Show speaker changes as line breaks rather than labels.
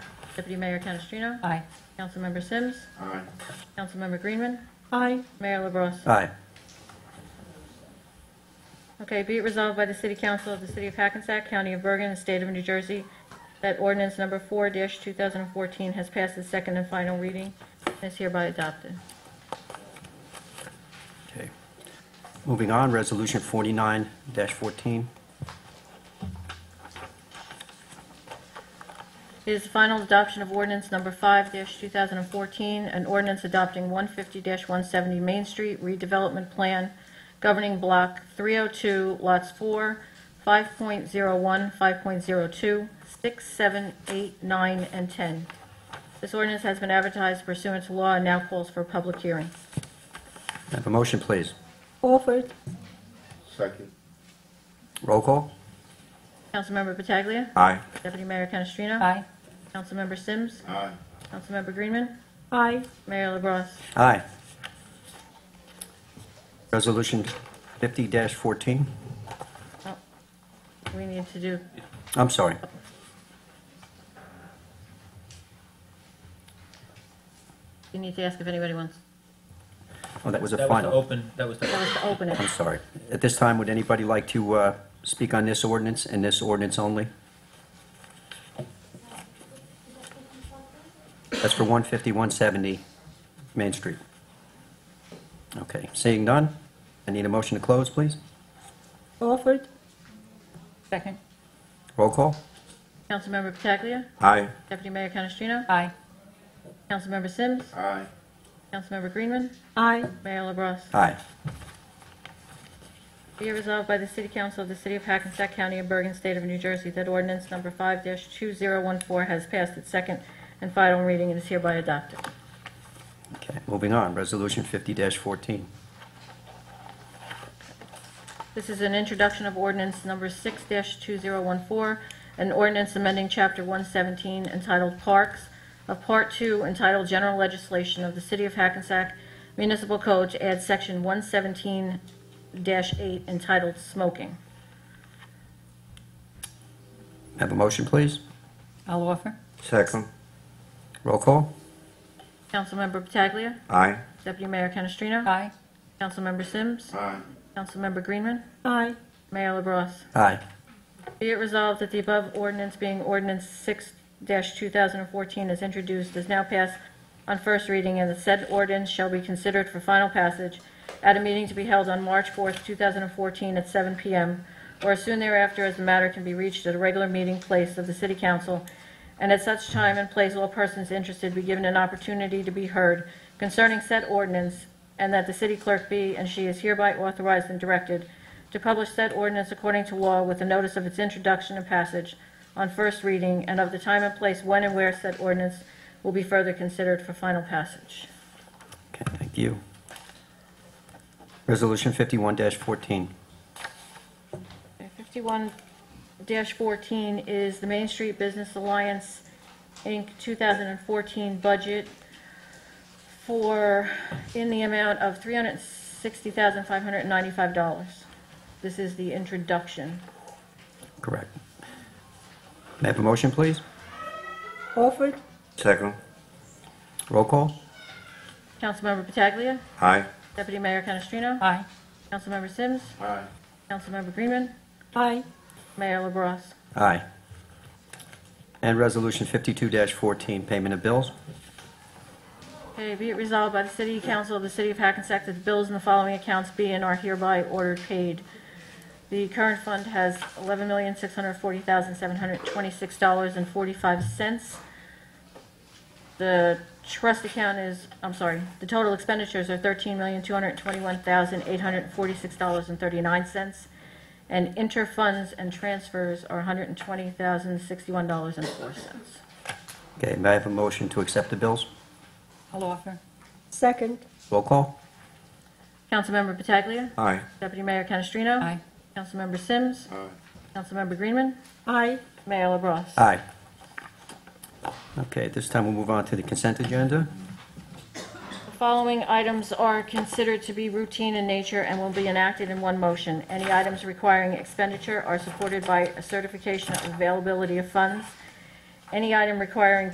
Deputy Mayor Canestrino?
Aye.
Councilmember Sims?
Aye.
Councilmember Greenman?
Aye.
Mayor LaBrus?
Aye.
Okay, be it resolved by the City Council of the City of Hackensack, County of Bergen, and State of New Jersey, that ordinance number 4-2014 has passed its second and final reading and is hereby adopted.
Okay. Moving on, Resolution 49-14.
It is the final adoption of ordinance number 5-2014, an ordinance adopting 150-170 Main Street redevelopment plan governing Block 302, Lots 4, 5.01, 5.02, 6, 7, 8, 9, and 10. This ordinance has been advertised pursuant to law and now calls for a public hearing.
May I Have a motion, please.
Offered.
Second.
Roll call.
Councilmember Pataglia.
Aye.
Deputy Mayor Canestrino.
Aye.
Councilmember Sims.
Aye.
Councilmember Greenman.
Aye.
Mayor LaBrus.
Aye. Resolution 50-14.
We need to do,
I'm sorry.
you need to ask if anybody wants,
Oh, that was a
That was the
final.
open, that was the,
that was to open it.
I'm sorry. At this time, would anybody like to uh, speak on this ordinance and this ordinance only? That's for 150, 170 Main Street. Okay, seeing none, I need a motion to close, please.
Offered.
Second.
Roll call.
Councilmember Pataglia.
Aye.
Deputy Mayor Canestrino.
Aye.
Councilmember Sims.
Aye.
Councilmember Greenman.
Aye.
Mayor LaBrus.
Aye.
Be it resolved by the City Council of the City of Hackensack County of Bergen, State of New Jersey, that ordinance number 5-2014 has passed its second and final reading and is hereby adopted.
Okay, moving on, Resolution 50-14.
This is an introduction of ordinance number 6-2014, an ordinance amending Chapter 117 entitled Parks of Part 2 entitled General Legislation of the City of Hackensack Municipal Code to add Section 117-8 entitled Smoking.
Have a motion, please.
I'll offer.
Second. Roll call.
Councilmember Pataglia.
Aye.
Deputy Mayor Canestrino.
Aye.
Councilmember Sims.
Aye.
Councilmember Greenman.
Aye.
Mayor LaBrus.
Aye.
Be it resolved that the above ordinance being ordinance six two thousand and fourteen is introduced, is now passed on first reading, and the said ordinance shall be considered for final passage at a meeting to be held on March fourth, two thousand and fourteen, at seven PM, or as soon thereafter as the matter can be reached at a regular meeting place of the city council, and at such time and place all persons interested be given an opportunity to be heard concerning said ordinance, and that the city clerk be, and she is hereby authorized and directed, to publish said ordinance according to law with a notice of its introduction and passage on first reading, and of the time and place when and where said ordinance will be further considered for final passage.
Okay, thank you. Resolution 51-14.
Fifty-one fourteen is the Main Street Business Alliance, Inc., two thousand and fourteen budget for, in the amount of three hundred and sixty thousand, five hundred and ninety-five dollars. This is the introduction.
Correct. May I have a motion, please?
Offered.
Second. Roll call.
Councilmember Pataglia,
Aye.
Deputy Mayor Canestrino,
Aye.
Councilmember Sims,
Aye.
Councilmember Greenman,
Aye.
Mayor LaBrus.
Aye. And Resolution 52-14, payment of bills.
Okay, be it resolved by the City Council of the City of Hackensack that the bills in the following accounts be and are hereby ordered paid. The current fund has $11,640,726.45. The trust account is, I'm sorry, the total expenditures are $13,221,846.39. And interfunds and transfers are $120,061.04.
Okay, may I have a motion to accept the bills?
I'll offer.
Second.
Roll call.
Councilmember Pataglia.
Aye.
Deputy Mayor Canestrino.
Aye.
Councilmember Sims.
Aye.
Councilmember Greenman.
Aye.
Mayor LaBrus.
Aye. Okay, at this time we'll move on to the consent agenda.
The following items are considered to be routine in nature and will be enacted in one motion. Any items requiring expenditure are supported by a certification of availability of funds. Any item requiring